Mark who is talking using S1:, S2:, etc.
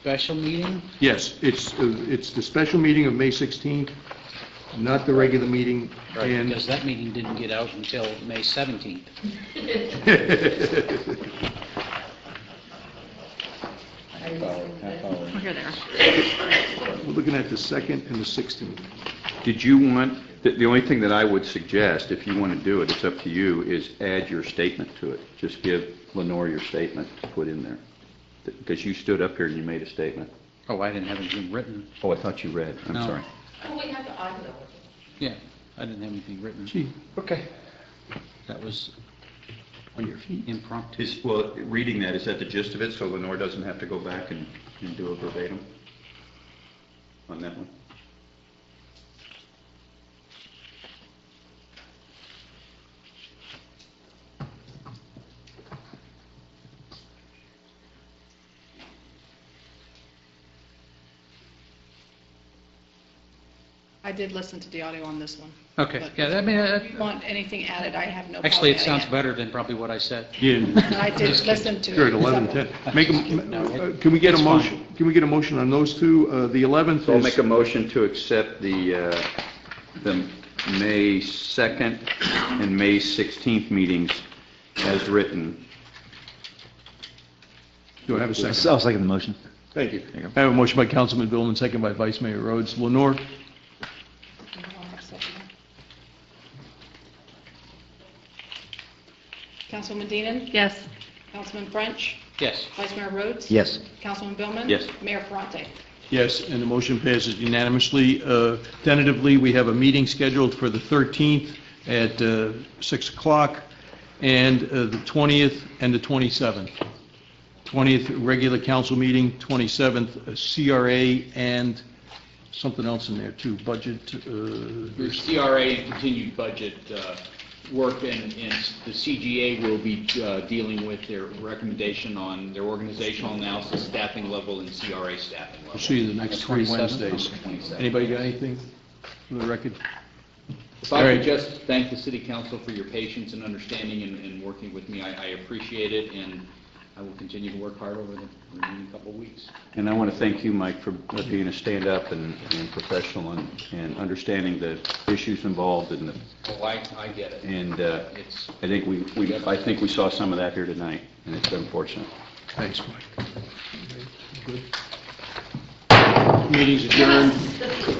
S1: special meeting?
S2: Yes, it's, uh, it's the special meeting of May 16th, not the regular meeting, and...
S1: Because that meeting didn't get out until May 17th.
S3: Half hour, half hour.
S4: We're here there.
S2: We're looking at the 2nd and the 16th.
S3: Did you want, the, the only thing that I would suggest, if you want to do it, it's up to you, is add your statement to it. Just give Lenore your statement to put in there. Because you stood up here and you made a statement.
S1: Oh, I didn't have anything written.
S3: Oh, I thought you read. I'm
S1: No.
S3: sorry.
S5: Oh, we have the audio.
S1: Yeah, I didn't have anything written.
S2: Gee,
S3: Okay.
S1: That was
S2: on your feet.
S1: impromptu.
S3: Is, well, reading that, is that the gist of it, so Lenore doesn't have to go back and, and do a verbatim on that one?
S4: I did listen to the audio on this one.
S1: Okay,
S4: But
S1: yeah, I mean,
S4: If you
S1: that-
S4: want anything added, I have no problem
S1: actually, it
S4: adding
S1: sounds better than probably what I said.
S2: Yeah,
S4: I did listen to it.
S2: you're at 11,
S4: so-
S2: 10. Make, a-
S1: No, it-
S2: uh, can we get a
S1: it's
S2: motion, can we get a motion on those two? Uh, The 11th
S3: So I'll make a
S2: is,
S3: motion to accept the, uh, the May 2nd and May 16th meetings as written.
S2: do I have a second?
S6: I'll second the motion.
S2: Thank you. I have a motion by Councilman Billman, second by Vice Mayor Rhodes. Lenore?
S4: Councilwoman Deanan?
S5: Yes.
S4: Councilman French?
S1: Yes.
S4: Vice Mayor Rhodes?
S6: Yes.
S4: Councilman Billman?
S3: Yes.
S4: Mayor Ferrante?
S2: Yes, and the motion passes unanimously. Uh, Tentatively, we have a meeting scheduled for the 13th at uh, 6 o'clock, and uh, the 20th and the 27th. 20th, regular council meeting, 27th, uh, CRA, and something else in there, too, budget,
S7: The
S2: uh,
S7: CRA and continued budget uh, work, and and the CGA will be uh, dealing with their recommendation on their organizational analysis, staffing level, and CRA staffing level.
S2: we'll see you the next three
S1: 27th?
S2: Wednesdays.
S7: Okay, 27th.
S2: Anybody got anything for the record?
S7: If
S2: All
S7: I
S2: right.
S7: could just thank the city council for your patience and understanding and- and working with me, I I appreciate it, and I will continue to work hard over the remaining couple of weeks.
S3: And I want to thank you, Mike, for being a stand-up and and professional and and understanding the issues involved and, the-
S7: Well, Oh, I I get it.
S3: and uh,
S7: It's,
S3: I think we, we I think we saw some of that here tonight, and it's unfortunate.
S2: Thanks, Mike. Meeting's adjourned.